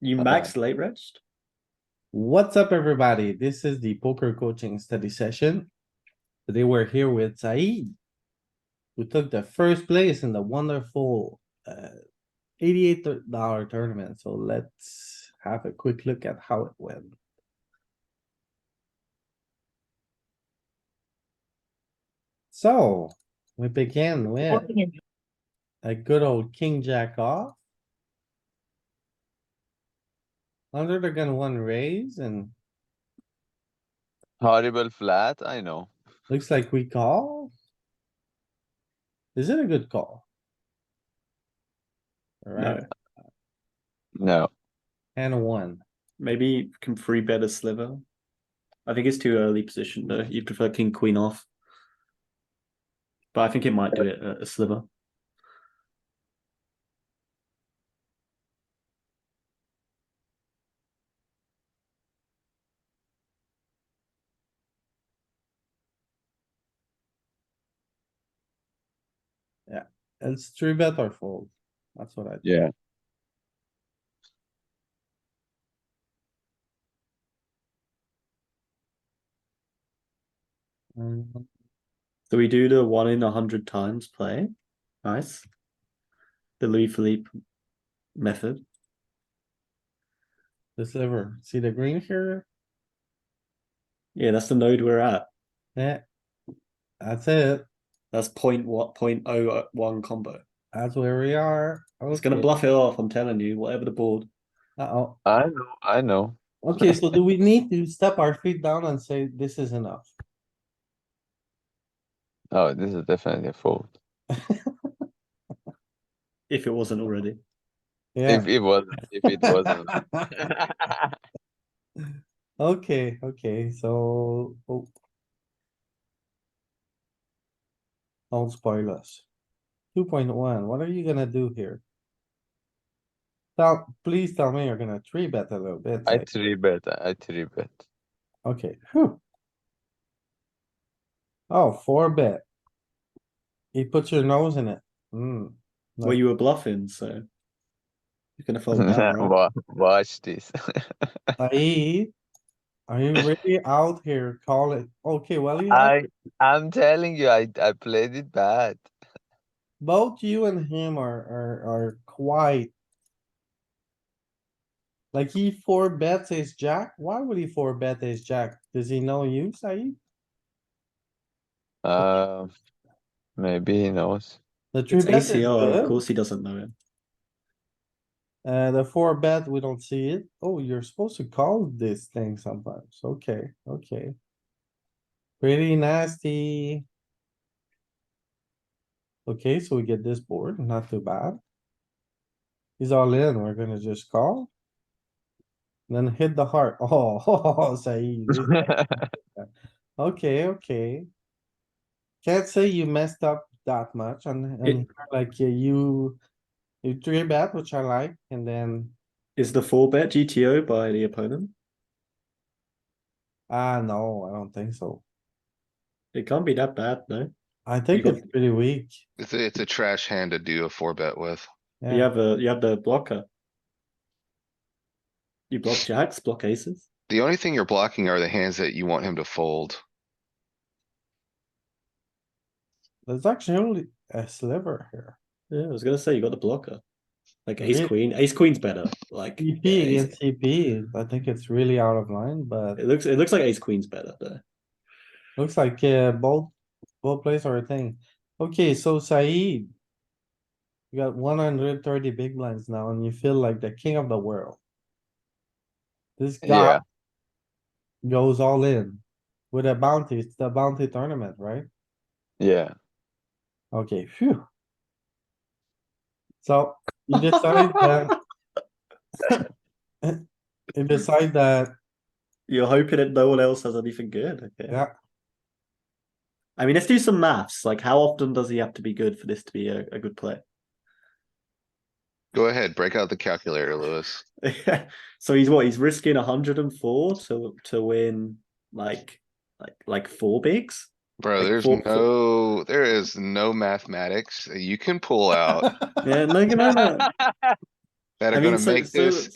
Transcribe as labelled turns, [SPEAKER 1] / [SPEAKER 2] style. [SPEAKER 1] You
[SPEAKER 2] Bye-bye.
[SPEAKER 1] max late rest?
[SPEAKER 2] What's up, everybody? This is the poker coaching study session. Today we're here with Saeed. Who took the first place in the wonderful uh eighty-eight dollar tournament, so let's have a quick look at how it went. So, we begin with a good old king jack off. Under the gun one raise and
[SPEAKER 3] Horrible flat, I know.
[SPEAKER 2] Looks like we call. Is it a good call? Alright,
[SPEAKER 3] No,
[SPEAKER 2] and a one.
[SPEAKER 1] Maybe you can free bet a sliver. I think it's too early position though. You prefer king queen off. But I think it might do it a, a sliver.
[SPEAKER 2] It's three bet or fold. That's what I,
[SPEAKER 3] yeah.
[SPEAKER 2] Mm,
[SPEAKER 1] So we do the one in a hundred times play. Nice. The Louis Philippe method.
[SPEAKER 2] the sliver. See the green here?
[SPEAKER 1] Yeah, that's the node we're at.
[SPEAKER 2] Yeah. Eh. That's it.
[SPEAKER 1] That's point what point oh one combo.
[SPEAKER 2] That's where we are.
[SPEAKER 1] It's gonna bluff it off, I'm telling you, whatever the board.
[SPEAKER 2] Uh-oh.
[SPEAKER 3] I know, I know.
[SPEAKER 2] Okay, so do we need to step our feet down and say this is enough?
[SPEAKER 3] Oh, this is definitely a fold.
[SPEAKER 1] If it wasn't already.
[SPEAKER 2] Yeah.
[SPEAKER 3] If it wasn't, if it wasn't.
[SPEAKER 2] Okay, okay, so. oh. Don't spoil us. Two point one, what are you gonna do here? Now, please tell me you're gonna three bet a little bit.
[SPEAKER 3] I
[SPEAKER 2] like,
[SPEAKER 3] three bet, I three bet.
[SPEAKER 2] Okay, phew. Oh, four bet. He puts your nose in it. Hmm, No.
[SPEAKER 1] Well you were bluffing, so you're gonna fold that, right?
[SPEAKER 3] Wa- Watch this.
[SPEAKER 2] Saeed, Are you really out here calling? Okay, well, you have-
[SPEAKER 3] I, I'm telling you, I, I played it bad.
[SPEAKER 2] both you and him are, are, are quite. Like he four bets his jack. Why would he four bet his jack? Does he know you, Saeed?
[SPEAKER 3] Um, maybe he knows.
[SPEAKER 2] The three
[SPEAKER 1] It's
[SPEAKER 2] bet is
[SPEAKER 1] ACR, of
[SPEAKER 2] good.
[SPEAKER 1] course he doesn't know it.
[SPEAKER 2] Uh, the four bet, we don't see it. Oh, you're supposed to call this thing sometimes. Okay, okay. Pretty nasty. Okay, so we get this board, not too bad. He's all in, we're gonna just call. Then hit the heart. Oh, Saeed. Okay, okay. Can't say you messed up that much and,
[SPEAKER 1] It-
[SPEAKER 2] and like yeah, you, you three bet, which I like, and then,
[SPEAKER 1] Is the four bet GTO by the opponent?
[SPEAKER 2] ah, no, I don't think so.
[SPEAKER 1] It can't be that bad, no?
[SPEAKER 2] I think
[SPEAKER 1] got-
[SPEAKER 2] it's pretty weak.
[SPEAKER 4] It's a, it's a trash hand to do a four bet with.
[SPEAKER 1] You have a you have the blocker. You block jacks, block aces.
[SPEAKER 4] The only thing you're blocking are the hands that you want him to fold.
[SPEAKER 2] There's actually only a sliver here.
[SPEAKER 1] Yeah, I was gonna say you got the blocker. Like
[SPEAKER 2] Yeah.
[SPEAKER 1] ace queen, ace queen's better. Like
[SPEAKER 2] EP
[SPEAKER 1] yeah, ace-
[SPEAKER 2] against EP, I think it's really out of line, but
[SPEAKER 1] it looks it looks like ace queen's better though.
[SPEAKER 2] looks like, uh, both, both plays are a thing. Okay, so Saeed. You got one hundred thirty big blinds now and you feel like the king of the world. This guy
[SPEAKER 3] Yeah,
[SPEAKER 2] goes all in with a bounty. It's the bounty tournament, right?
[SPEAKER 3] yeah.
[SPEAKER 2] Okay, phew. So you decide that. You decide that,
[SPEAKER 1] You're hoping that no one else has anything good. Okay.
[SPEAKER 2] yeah,
[SPEAKER 1] I mean, let's do some maths. Like, how often does he have to be good for this to be a, a good play?
[SPEAKER 4] Go ahead, break out the calculator, Lewis.
[SPEAKER 1] so he's what? He's risking 104 to to win like like like four bigs.
[SPEAKER 4] Bro,
[SPEAKER 1] Like
[SPEAKER 4] there's
[SPEAKER 1] four- four-
[SPEAKER 4] no, there is no mathematics that you can pull out
[SPEAKER 1] Yeah, no, no, no.
[SPEAKER 4] that
[SPEAKER 1] I
[SPEAKER 4] are
[SPEAKER 1] mean,
[SPEAKER 4] gonna
[SPEAKER 1] so-
[SPEAKER 4] make
[SPEAKER 1] so-
[SPEAKER 4] this